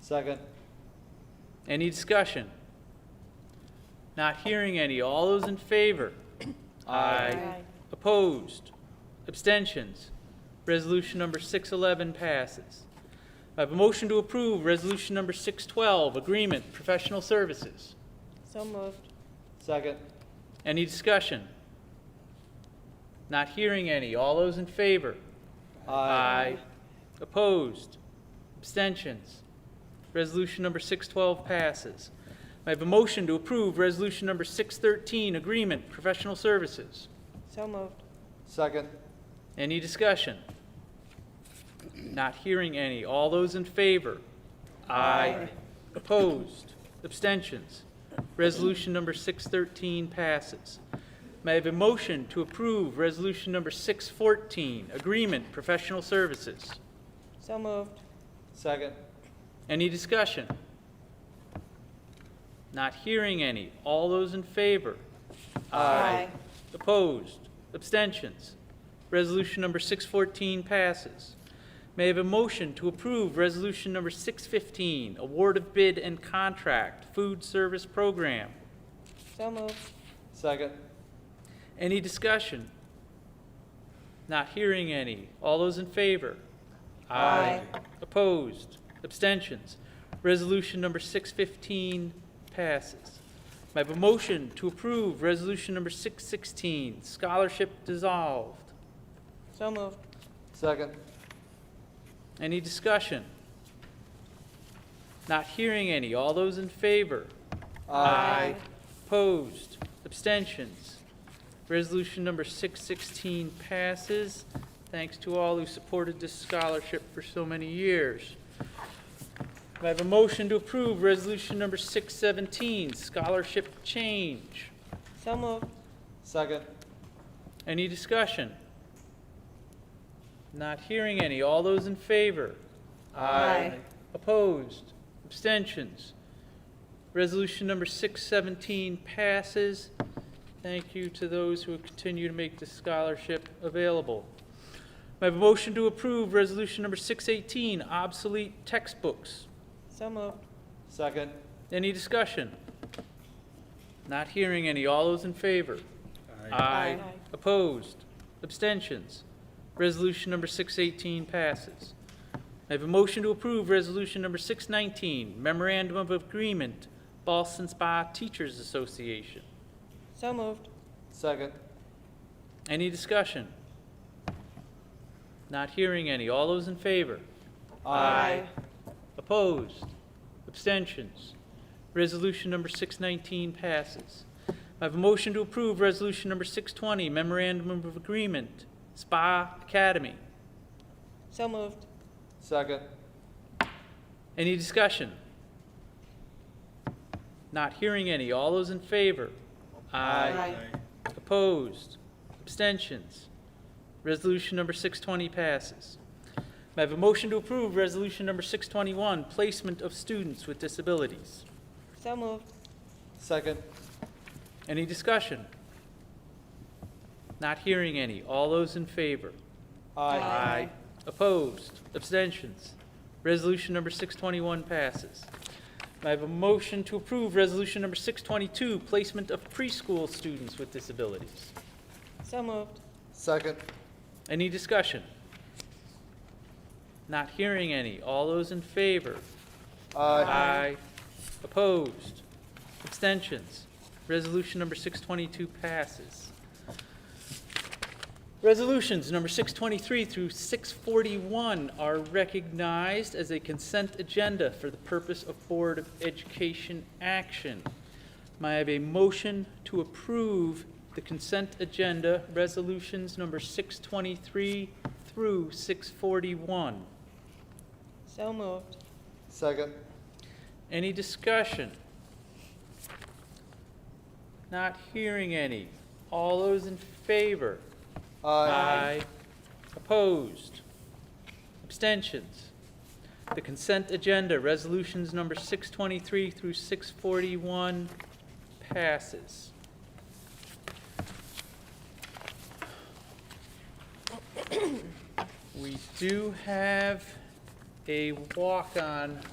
Second. Any discussion? Not hearing any. All those in favor? Aye. Opposed? Abstentions? Resolution number 611 passes. I have a motion to approve Resolution number 612, Agreement Professional Services. So moved. Second. Any discussion? Not hearing any. All those in favor? Opposed? Abstentions? Resolution number 612 passes. I have a motion to approve Resolution number 613, Agreement Professional Services. So moved. Second. Any discussion? Not hearing any. All those in favor? Aye. Opposed? Abstentions? Resolution number 613 passes. May I have a motion to approve Resolution number 614, Agreement Professional Services? So moved. Second. Any discussion? Not hearing any. All those in favor? Opposed? Abstentions? Resolution number 614 passes. May I have a motion to approve Resolution number 615, award of bid and contract, food service program? So moved. Second. Any discussion? Not hearing any. All those in favor? Aye. Opposed? Abstentions? Resolution number 615 passes. May I have a motion to approve Resolution number 616, scholarship dissolved? So moved. Second. Any discussion? Not hearing any. All those in favor? Aye. Opposed? Abstentions? Resolution number 616 passes. Thanks to all who supported this scholarship for so many years. May I have a motion to approve Resolution number 617, scholarship change? So moved. Second. Any discussion? Not hearing any. All those in favor? Aye. Opposed? Abstentions? Resolution number 617 passes. Thank you to those who continue to make this scholarship available. May I have a motion to approve Resolution number 618, obsolete textbooks? So moved. Second. Any discussion? Not hearing any. All those in favor? Aye. Opposed? Abstentions? Resolution number 618 passes. I have a motion to approve Resolution number 619, Memorandum of Agreement, Boston Spa Teachers Association. So moved. Second. Any discussion? Not hearing any. All those in favor? Opposed? Abstentions? Resolution number 619 passes. I have a motion to approve Resolution number 620, Memorandum of Agreement, Spa Academy. So moved. Second. Any discussion? Not hearing any. All those in favor? Opposed? Abstentions? Resolution number 620 passes. May I have a motion to approve Resolution number 621, Placement of Students with Disabilities? So moved. Second. Any discussion? Not hearing any. All those in favor? Aye. Opposed? Abstentions? Resolution number 621 passes. May I have a motion to approve Resolution number 622, placement of preschool students with disabilities? So moved. Second. Any discussion? Not hearing any. All those in favor? Aye. Opposed? Abstentions? Resolution number 622 passes. Resolutions number 623 through 641 are recognized as a consent agenda for the purpose of Board of Education action. May I have a motion to approve the consent agenda resolutions number 623 through 641? So moved. Second. Any discussion? Not hearing any. All those in favor? Opposed? Abstentions? The consent agenda, resolutions number 623 through 641 passes. We do have a walk-on